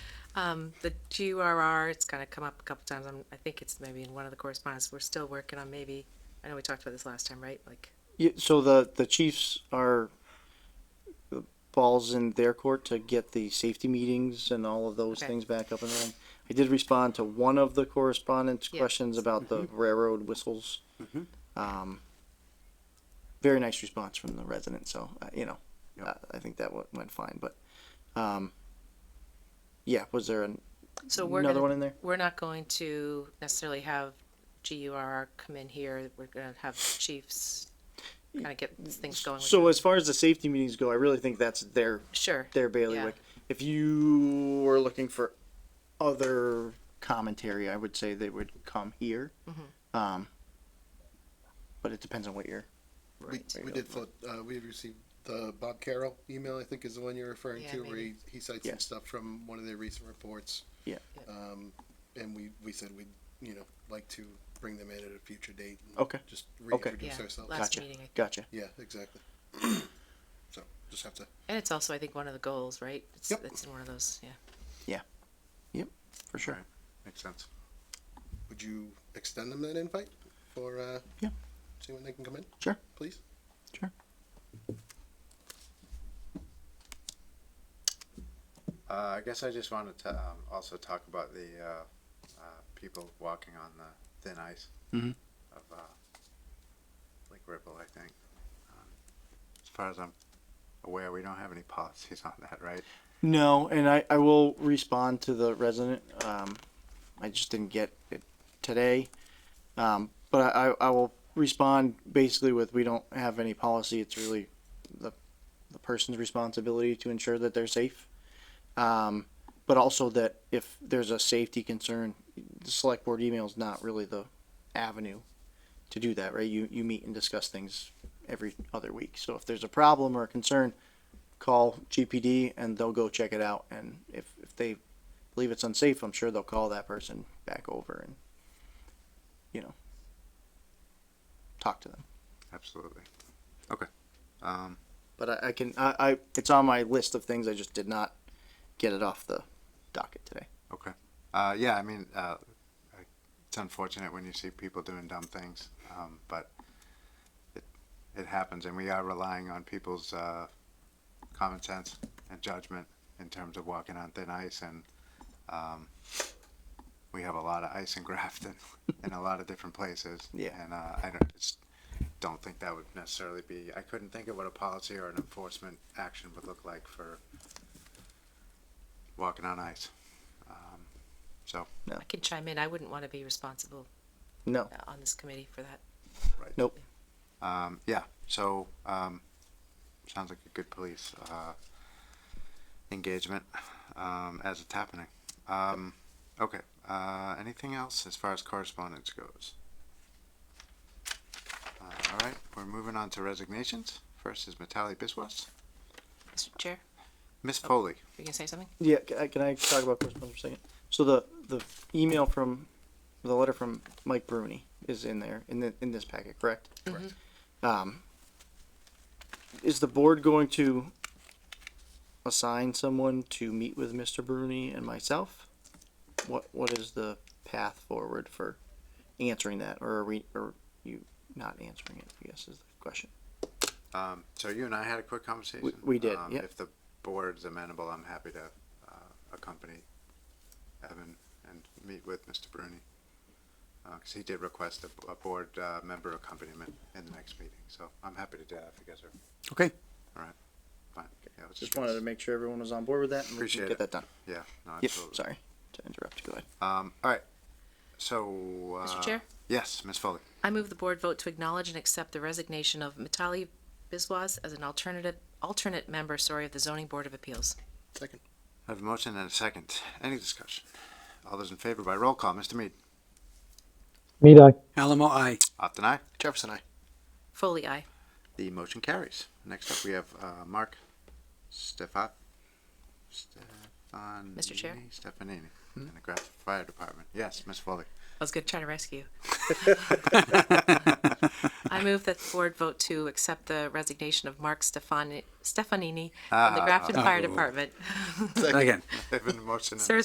Um, the GRR, it's kind of come up a couple times. I'm, I think it's maybe in one of the correspondence. We're still working on maybe, I know we talked about this last time, right? Like, Yeah, so the the Chiefs are the balls in their court to get the safety meetings and all of those Okay. things back up and running. I did respond to one of the correspondence Yeah. questions about Mm-hmm. the railroad whistles. Um, very nice response from the resident. So uh, you know, Yep. uh, I think that w- went fine. But um, yeah, was there an, so we're another gonna, one in there? we're not going to necessarily have GURR come in here. We're gonna have chiefs kind of get things going. with So them. as far as the safety meetings go, I really think that's their Sure. their bailiwick. If you were looking for other commentary, I would say they would come here. Mm-hmm. Um, but it depends on what you're. We, There you we go. did, float, uh, we received the Bob Carroll email, I think is the one you're referring Yeah, to, where he, maybe. he cites Yeah. some stuff from one of their recent reports. Yeah. Yeah. Um, and we, we said we'd, you know, like to bring them in at a future date. and Okay. Just Okay. reintroduce Yeah, ourselves. last Gotcha. meeting. I- Gotcha. Yeah, exactly. So, just have to, And it's also, I think, one of the goals, right? It's, Yep. it's in one of those, yeah. For sure. Right. Makes sense. would you extend them that invite for, uh? Yeah. See when they can come in? Sure. Please? Uh, I guess I just wanted to um, also talk about the uh, uh, people walking on the thin ice Mhm. of uh, Lake Ripple, I think. Um, as far as I'm aware, we don't have any policies on that, right? No, and I, I will respond to the resident. Um, I just didn't get it today. Um, but I, I will respond basically with we don't have any policy. It's really the, the person's responsibility to ensure that they're safe. Um, but also that if there's a safety concern, the select board email is not really the avenue to do that, right? You, you meet and discuss things every other week. So if there's a problem or a concern, call GPD and they'll go check it out. And if, if they believe it's unsafe, I'm sure they'll call that person back over and, you know, talk to them. Absolutely. Okay. Um, But I, I can, I, I, it's on my list of things. I just did not get it off the docket today. okay. Uh, yeah, I mean, uh, I- it's unfortunate when you see people doing dumb things, um, but it, it happens, and we are relying on people's uh, common sense and judgment in terms of walking on thin ice and um, we have a lot of ice in Grafton in a lot of different places. Yeah. And uh, I don't, just don't think that would necessarily be, I couldn't think of what a policy or an enforcement action would look like for walking on ice. Um, so, I can chime in. I wouldn't want to be responsible No. uh, on this committee for that. right. Nope. Um, yeah, so, um, sounds like a good police, uh, engagement, um, as it's happening. Um, okay, uh, anything else as far as correspondence goes? Uh, all right, we're moving on to resignations. First is Matali Biswas. Mr. Chair, Miss Foley, you gonna say something? Yeah, can I, can I talk about correspondence for a second? So the the email from the letter from Mike Bruni is in there in the, in this packet, correct? Correct. Mm-hmm. Um, is the board going to assign someone to meet with Mr. Bruni and myself? What what is the path forward for answering that, or are we, or you not answering it? I guess is the question. um, so you and I had a quick conversation. we did, Um, yep. If the board's amenable, I'm happy to, uh, accompany Evan and meet with Mr. Bruni. Uh 'cause cause he did request a, a board, uh, member accompaniment in the next meeting, so I'm happy to do that if you guys are Okay. fine. Yeah, let's Just get wanted this- to make sure everyone was on board with that and we Appreciate can it. get that done. Yeah, no, Yep, absolutely. sorry to interrupt. Go ahead. Um, all right, so, uh. Mr. Chair? Yes, Miss Foley. I move the board vote to acknowledge and accept the resignation of Mitali Biswas as an alternative, alternate member, sorry, of the zoning board of appeals. Second. I have a motion and a second. Any discussion? All those in favor by roll call, Mr. Mead. Meat eye. Alamo, I. Upton, aye. Jefferson, I. Foley, aye. The motion carries. Next up, we have uh, Mark Stefan. Stefan. Mr. Chair? Stefanini in the Grafton Fire Department. Yes, Miss Foley. I was gonna try to rescue. you. I move that the board vote to accept the resignation of Mark Stefani, Stefanini from the Ah. Grafton Fire Oh. Department. Again. I have a motion and a Sir,